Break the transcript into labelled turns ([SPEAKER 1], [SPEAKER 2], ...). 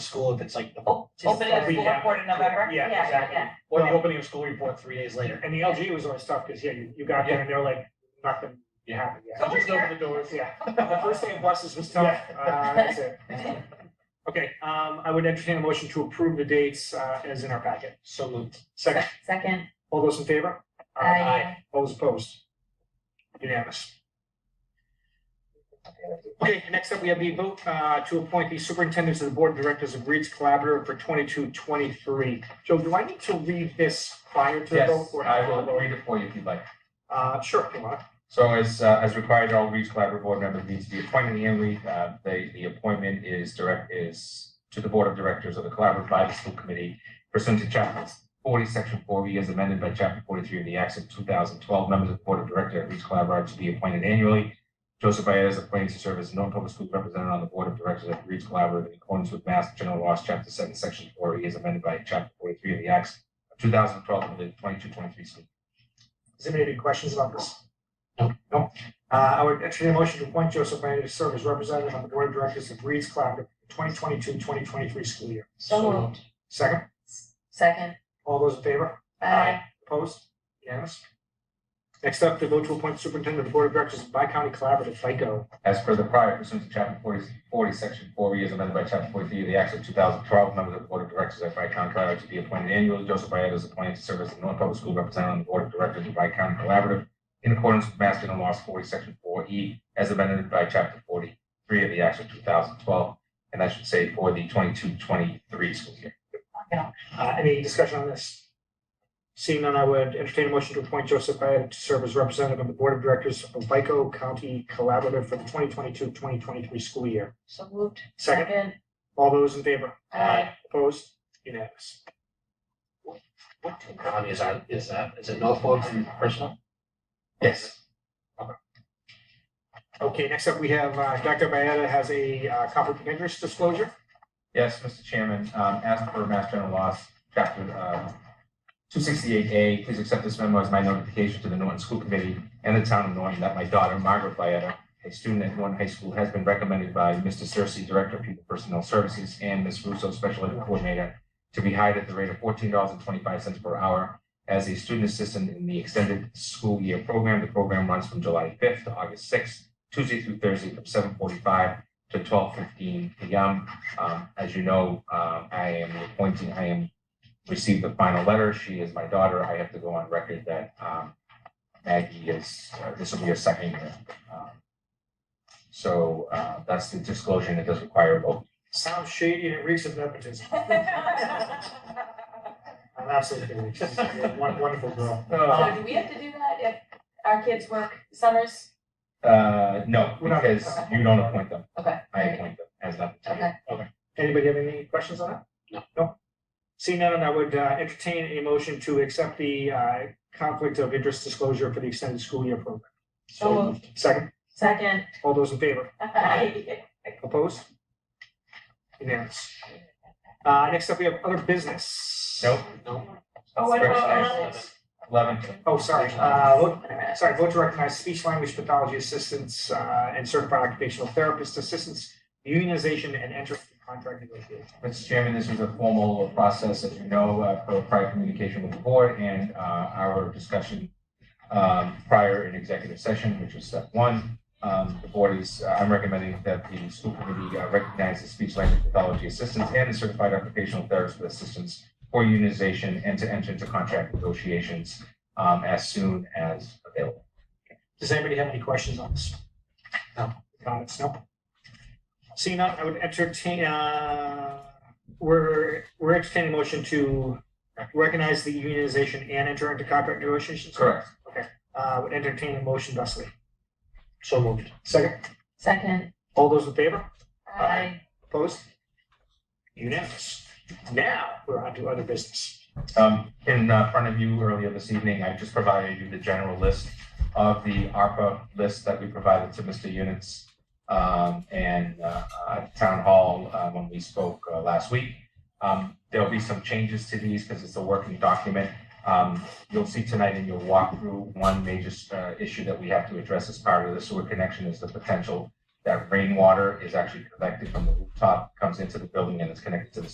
[SPEAKER 1] school if it's like. the-
[SPEAKER 2] Oh,
[SPEAKER 1] just
[SPEAKER 2] Opening the
[SPEAKER 1] every
[SPEAKER 2] school
[SPEAKER 1] half-
[SPEAKER 2] report in November?
[SPEAKER 1] Yeah, exactly.
[SPEAKER 2] yeah.
[SPEAKER 1] Or the opening of school report three days later.
[SPEAKER 3] And the LG was always tough, because, yeah, you, you got there and they're like, nothing, you haven't yet.
[SPEAKER 2] So
[SPEAKER 1] Just
[SPEAKER 2] we're
[SPEAKER 1] open the doors.
[SPEAKER 3] Yeah, the first day of buses was tough, uh, that's it. Okay, um, I would entertain a motion to approve the dates, uh, as in our packet.
[SPEAKER 1] So moved.
[SPEAKER 3] Second,
[SPEAKER 2] Second,
[SPEAKER 3] all those in favor?
[SPEAKER 2] I.
[SPEAKER 3] All those opposed? Unanimous. Okay, next up, we have the vote, uh, to appoint the superintendents of the board of directors of Reed's Collaborative for twenty-two, twenty-three. Joe, do I need to read this prior to the vote?
[SPEAKER 4] Yes,
[SPEAKER 3] or
[SPEAKER 4] I will read it for you if you'd like.
[SPEAKER 3] Uh, sure, come on.
[SPEAKER 4] So as, uh, as required, all Reach Collaborative Board members need to be appointed in the end. Uh, they, the appointment is direct, is to the Board of Directors of the Collaborative Bible School Committee pursuant to chapter forty, section four E, as amended by chapter forty-three of the Acts of two thousand twelve, members of the Board of Directors of Reach Collaborative to be appointed annually. Joseph Ayers appointed to serve as a non-public school representative on the Board of Directors of Reach Collaborative in accordance with Mass General Laws, chapter seven, section four E, as amended by chapter forty-three of the Acts of two thousand twelve, and the twenty-two, twenty-three school.
[SPEAKER 3] Does anybody have any questions about this? No. No. Uh, I would entertain a motion to appoint Joseph Brandon to serve as representative on the board of directors of Reed's Collaborative for 2022, 2023 school year.
[SPEAKER 2] So moved.
[SPEAKER 3] Second,
[SPEAKER 2] Second,
[SPEAKER 3] all those in favor?
[SPEAKER 2] I.
[SPEAKER 3] Opposed? Unanimous? Next up, to vote to appoint superintendent of the board of directors of Bi-County Collaborative, FICO.
[SPEAKER 4] As per the prior pursuant to chapter 40, 40, section four, E, as amended by chapter forty-three of the Acts of two thousand twelve, members of the Board of Directors of County Collaborative to be appointed annually. Joseph Byetta is appointed to serve as the North Public School Representative on the Board of Directors of County Collaborative in accordance with Mass General Laws forty, section four, E, as amended by chapter forty-three of the Acts of two thousand twelve. And I should say for the twenty-two, twenty-three school year.
[SPEAKER 3] Uh, Any discussion on this? Seeing none, I would entertain a motion to appoint Joseph Brandon to serve as representative on the board of directors of FICO County Collaborative for the 2022, 2023 school year.
[SPEAKER 2] So moved.
[SPEAKER 3] Second, all those in favor?
[SPEAKER 2] I.
[SPEAKER 3] Opposed? Unanimous.
[SPEAKER 1] What county is that, is that, is it Norfolk and Bristol?
[SPEAKER 4] Yes.
[SPEAKER 3] Okay, next up, we have, uh, Dr. Byetta has a, uh, conflict of interest disclosure.
[SPEAKER 4] Yes, Mr. Chairman, um, as per Mass General Laws, Chapter, uh, two sixty-eight A, please accept this memo as my notification to the Norton School Committee and the town of Norton that my daughter, Margaret Vieta, a student at Norton High School, has been recommended by Mr. Cersey, Director of People Personnel Services, and Ms. Russo, Special Ed Coordinator, to be hired at the rate of fourteen dollars and twenty-five cents per hour as a student assistant in the extended school year program. The program runs from July fifth to August sixth, Tuesday through Thursday from seven forty-five to twelve fifteen PM. Um, as you know, uh, I am appointing, I am received the final letter. She is my daughter. I have to go on record that, um, Maggie is, uh, this will be her second year. Um, So, uh, that's the disclosure and it does require a vote.
[SPEAKER 3] Sounds shady and it reeks of nepotism. I'm absolutely kidding. She's a won- wonderful girl.
[SPEAKER 2] So do we have to do that if our kids work summers?
[SPEAKER 4] Uh, no,
[SPEAKER 3] We're not-
[SPEAKER 4] because you don't appoint them.
[SPEAKER 2] Okay.
[SPEAKER 4] I appoint them as that.
[SPEAKER 2] Okay.
[SPEAKER 3] Anybody have any questions on that?
[SPEAKER 1] No.
[SPEAKER 3] No? Seeing none, I would, uh, entertain a motion to accept the, uh, conflict of interest disclosure for the extended school year program.
[SPEAKER 2] So moved.
[SPEAKER 3] Second,
[SPEAKER 2] Second,
[SPEAKER 3] all those in favor?
[SPEAKER 2] I.
[SPEAKER 3] Opposed? Unanimous. Uh, next up, we have other business.
[SPEAKER 4] Nope.
[SPEAKER 1] No.
[SPEAKER 2] Oh, what
[SPEAKER 4] Correction
[SPEAKER 2] about
[SPEAKER 4] items.
[SPEAKER 2] others?
[SPEAKER 4] Eleven.
[SPEAKER 3] Oh, sorry, uh, vote- Sorry, vote to recognize speech language pathology assistants uh, and certified occupational therapist assistants, unionization and enter contract negotiation.
[SPEAKER 4] Mr. Chairman, this was a formal process, as you know, uh, for prior communication with the board and uh, our discussion um, prior in executive session, which was step one. Um, The board is, I'm recommending that the school committee uh, recognize the speech language pathology assistants and the certified occupational therapist assistants for unionization and to enter into contract negotiations um, as soon as available.
[SPEAKER 3] Does anybody have any questions on this?
[SPEAKER 1] No.
[SPEAKER 3] Comments, no? Seeing none, I would entertain, uh, we're, we're entertaining a motion to recognize the unionization and enter into contract negotiations.
[SPEAKER 4] Correct.
[SPEAKER 3] Uh, would entertain a motion, Dusty.
[SPEAKER 1] So moved.
[SPEAKER 3] Second,
[SPEAKER 2] Second,
[SPEAKER 3] all those in favor?
[SPEAKER 2] I.
[SPEAKER 3] Opposed? Unanimous. Now, we're on to other business.
[SPEAKER 4] Um, in uh, front of you earlier this evening, I just provided you the general list of the ARPA list that we provided to Mr. Units. Um, and, uh, at Town Hall, uh, when we spoke, uh, last week. Um, there'll be some changes to these because it's a working document. Um, you'll see tonight in your walkthrough, one major, uh, issue that we have to address as part of the sewer connection is the potential that rainwater is actually collected from the rooftop, comes into the building, and is connected to the